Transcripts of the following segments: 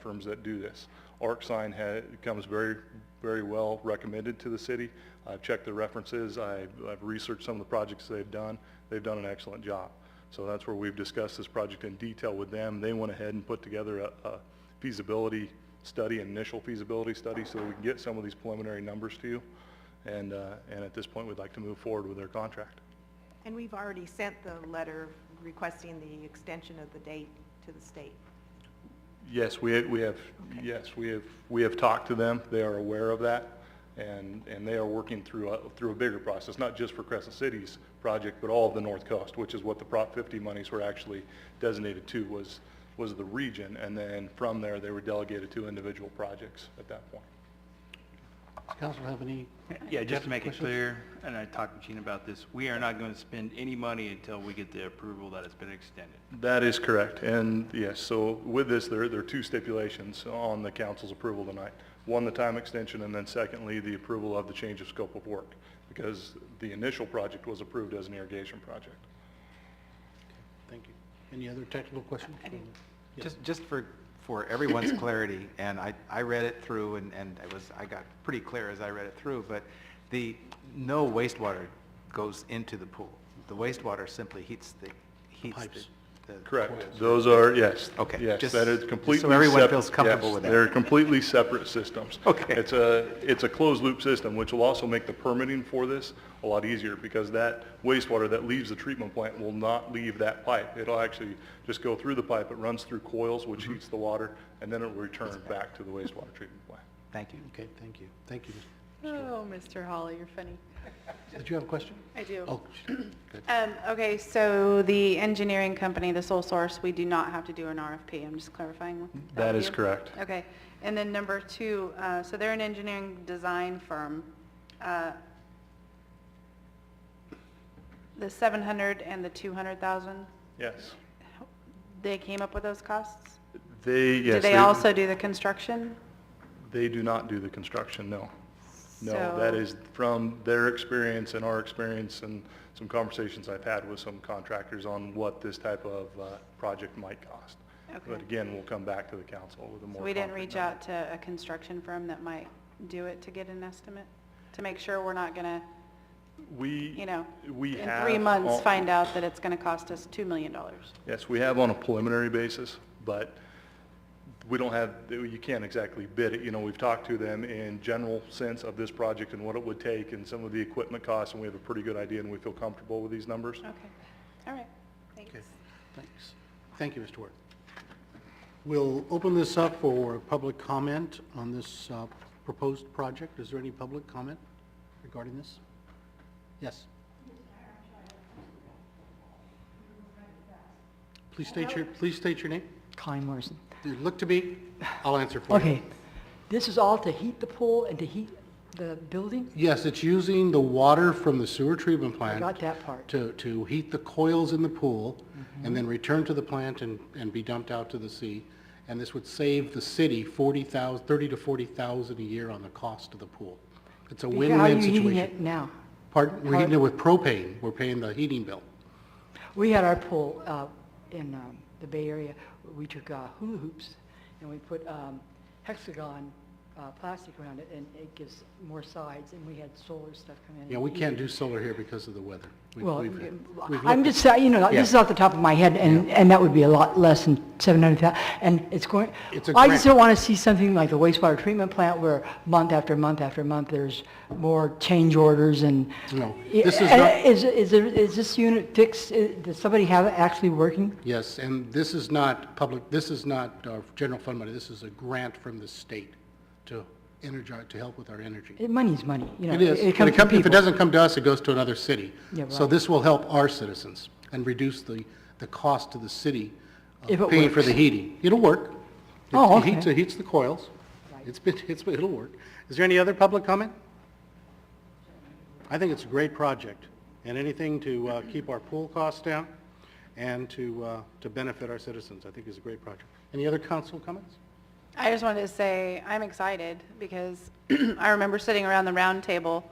firms that do this. ArcSign ha comes very, very well recommended to the city. I've checked the references, I've, I've researched some of the projects they've done. They've done an excellent job. So that's where we've discussed this project in detail with them. They went ahead and put together a, a feasibility study, initial feasibility study, so that we can get some of these preliminary numbers to you. And, uh, and at this point, we'd like to move forward with their contract. And we've already sent the letter requesting the extension of the date to the state. Yes, we, we have, yes, we have, we have talked to them, they are aware of that, and, and they are working through, a- through a bigger process, not just for Crescent City's project, but all of the North Coast, which is what the Prop 50 monies were actually designated to, was, was the region, and then from there, they were delegated to individual projects at that point. Does council have any? Yeah, just to make it questions? clear, and I talked to Gene about this, we are not going to spend any money until we get the approval that it's been extended. That is correct, and yes, so with this, there, there are two stipulations on the council's approval tonight. One, the time extension, and then secondly, the approval of the change of scope of work, because the initial project was approved as an irrigation project. Thank you. Any other technical questions? Yeah. Just, just for, for everyone's clarity, and I, I read it through and, and it was, I got pretty clear as I read it through, but the, no wastewater goes into the pool. The wastewater simply heats the, heats pipes. the. the- Correct, those are, yes. Okay, Yes, just- that is completely. so everyone sep- feels comfortable yes, with that. They're completely separate systems. Okay. It's a, it's a closed-loop system, which will also make the permitting for this a lot easier, because that wastewater that leaves the treatment plant will not leave that pipe. It'll actually just go through the pipe, it runs through coils, which Mm-hmm. heats the water, and then it will return back to the wastewater treatment plant. Thank you. Okay, thank you. Thank you. Ms. Oh, Mr. Holly, you're funny. Did you have a question? I do. Oh, good. Um, okay, so the engineering company, the sole source, we do not have to do an RFP, I'm just clarifying. That with is you. correct. Okay, and then number two, uh, so they're an engineering design firm. Uh, The seven hundred and the two hundred thousand, Yes. they came up with those costs? They, yes. Do they also do the construction? They do not do the construction, no. No, So- that is from their experience and our experience and some conversations I've had with some contractors on what this type of uh, project might cost. But Okay. again, we'll come back to the council with a So more. we didn't concrete reach number. out to a construction firm that might do it to get an estimate? To make sure we're not gonna We. you know, We in have three months, on- find out that it's going to cost us $2 million. Yes, we have on a preliminary basis, but we don't have, you can't exactly bid it. You know, we've talked to them in general sense of this project and what it would take and some of the equipment costs, and we have a pretty good idea and we feel comfortable with these numbers. Okay, all right, Okay, thanks. thanks. Thank you, Mr. Ward. We'll open this up for public comment on this uh, proposed project. Is there any public comment regarding this? Yes. Please state your, please state your name. Colleen Morrison. You look to me, I'll answer for you. Okay, this is all to heat the pool and to heat the building? Yes, it's using the water from the sewer treatment I plant got that Mm-hmm. part. to, to heat the coils in the pool and then return to the plant and, and be dumped out to the sea. And this would save the city 40,000, 30 to 40,000 a year on the cost of the pool. It's a Because How are win-win you heating it situation. now? Pardon, we're how- heating it with propane, we're paying the heating bill. We had our pool uh, in um, the Bay Area. We took uh, hula hoops and we put um, hexagon uh, plastic around it and it gives more sides and we had solar stuff come in. and Yeah, we heat can't it. do solar here because of the weather. We've- Mm-hmm. Well, mm, we've- we've I'm looked- just, saying, you know, Yeah. this is off the top of my head, and, and that would be a lot less than 700,000, and it's going, It's a I just grant. don't want to see something like the wastewater treatment plant where month after month after month, there's more change orders and. No, Yeah, eh, this is and not- Is, is there- is this unit fixed, Uh, does somebody have it actually working? Yes, and this is not public, this is not uh, general fund money, this is a grant from the state to energize, to help with our energy. Eh, Money's money, you know. It is. When comes it from come- If it people. doesn't come to us, it goes to another city. Yeah, So right. this will help our citizens and reduce the, the cost to the city If of it paying for the works. heating. It'll work. It- Oh, It heats, okay. it heats the coils. Right. It's been, it's, been- it'll work. Is there any other public comment? I think it's a great project, and anything to uh, keep our pool costs down and to, uh, to benefit our citizens, I think is a great project. Any other council comments? I just wanted to say, I'm excited because I remember sitting around the round table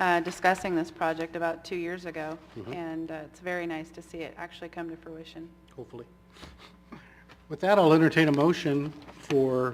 uh, discussing this project about two years ago, Mm-hmm. and uh, it's very nice to see it actually come to fruition. Hopefully. With that, I'll entertain a motion for